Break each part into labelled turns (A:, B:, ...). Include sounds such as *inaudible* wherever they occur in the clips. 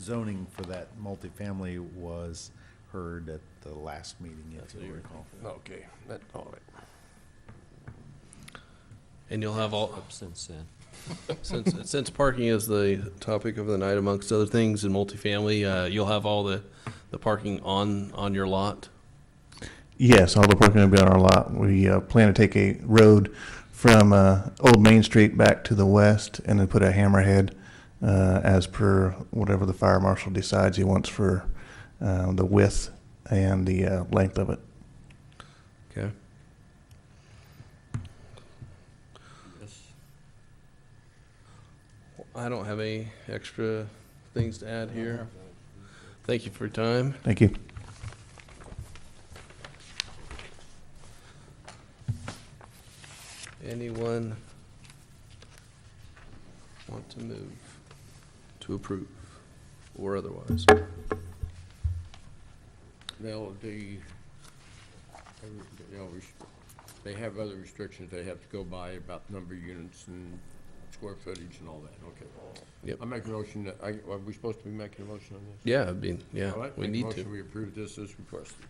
A: zoning for that multifamily was heard at the last meeting, if you recall.
B: Okay, that, all right.
C: And you'll have all,
D: up since then.
C: *laughs* since, since parking is the topic of the night amongst other things in multifamily, uh, you'll have all the, the parking on, on your lot?
E: Yes, all the parking will be on our lot. We uh, plan to take a road from uh, Old Main Street back to the west and then put a hammerhead uh, as per whatever the fire marshal decides he wants for uh, the width and the uh, length of it.
C: Okay. I don't have any extra things to add here. Thank you for your time.
E: Thank you.
C: Anyone want to move to approve or otherwise?
B: Now, the, you know, res- they have other restrictions they have to go by about number of units and square footage and all that, okay.
C: Yep.
B: I make a motion, that- I, are we supposed to be making a motion on this?
C: Yeah, I mean, yeah,
B: All right,
C: we
B: make a
C: need
B: motion,
C: to.
B: We approve this as requested.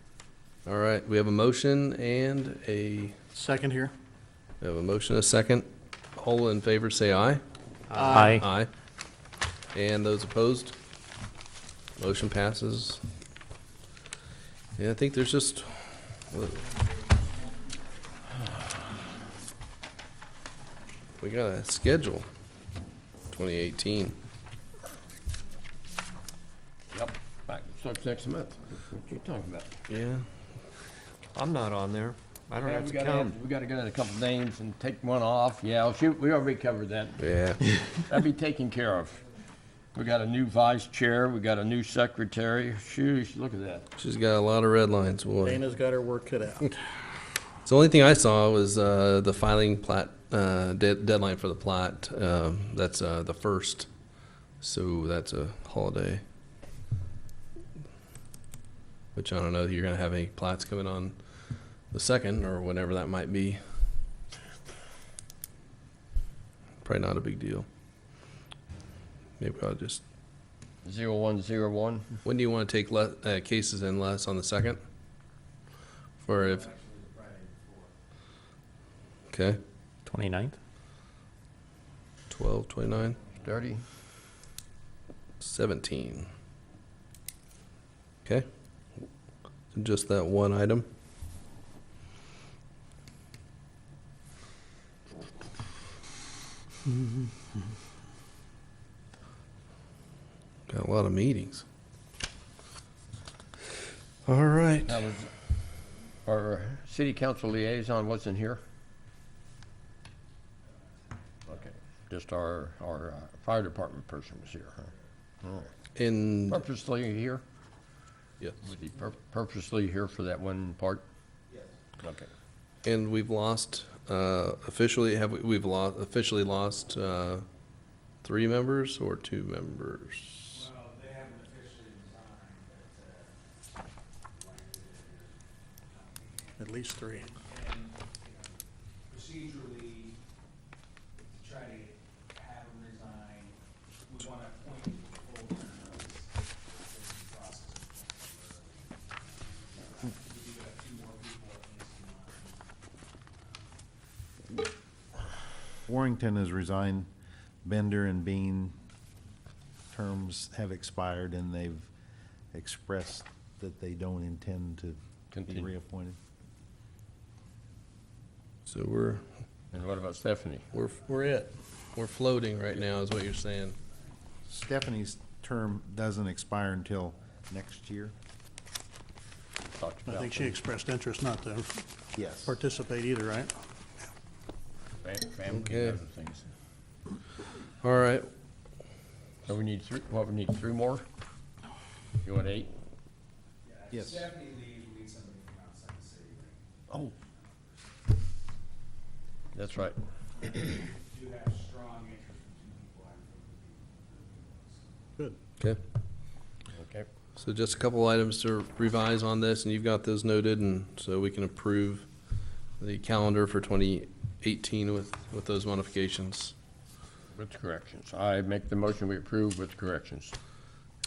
C: All right, we have a motion and a,
F: Second here.
C: we have a motion, a second. All in favor, say aye.
D: Aye.
C: Aye. And those opposed? Motion passes. Yeah, I think there's just, we got a schedule, 2018.
B: Yep. Back, starts next month. What you talking about?
C: Yeah.
D: I'm not on there. I don't
B: Yeah,
D: have
B: we
D: to
B: gotta
D: count.
B: have- We gotta get in a couple names and take one off. Yeah, oh, shoot, we already covered that.
C: Yeah.
B: That'd be taken care of. We got a new vice chair, we got a new secretary. Shoot, look at that.
C: She's got a lot of red lines, boy.
F: Dana's got her work cut out.
C: *laughs* So the only thing I saw was uh, the filing plat, uh, de- deadline for the plat. Um, That's uh, the first, so that's a holiday. Which I don't know, you're gonna have any plats coming on the second or whenever that might be. Probably not a big deal. Maybe I'll just,
B: Zero one zero one.
C: when do you want to take le- uh, cases in less on the second? For if. Okay.
D: 29th?
C: 12, 29,
B: Thirty.
C: 17. Okay. Just that one item. Got a lot of meetings. All right.
B: That was, our city council liaison wasn't here? Okay, just our, our uh, fire department person was here, huh? All right.
C: And
B: Purposely here?
C: yes.
B: Was he pur- purposely here for that one part? Yes. Okay.
C: And we've lost uh, officially. Have we, we've lost officially lost uh, three members or two members?
G: Oh, uh,
F: At least three.
G: procedurally, to try to have them resign, we want to appoint full term notice. This is the process. We do have two more people at least in line.
A: Warrington has resigned. Bender and Bean terms have expired, and they've expressed that they don't intend to be
B: Continue.
A: reappointed.
C: So we're
B: And what about Stephanie?
C: We're, we're it. We're floating right now, is what you're saying.
A: Stephanie's term doesn't expire until next year.
B: Talked
F: I
B: about
F: think she
B: them.
F: expressed interest not to
A: Yes.
F: participate either, right?
B: Fam- Family
C: Okay.
B: and other things.
C: All right,
B: So we need three, what, we need three more? You want eight?
G: Yeah, if
A: Yes.
G: Stephanie leaves, we need somebody from outside the city. right?
B: Oh. That's right.
G: We Do have strong interest from two people I think would be
F: Good.
C: okay.
B: Okay.
C: So just a couple items to revise on this, and you've got those noted, and so we can approve the calendar for 2018 with, with those modifications.
B: With corrections. I make the motion we approve with corrections.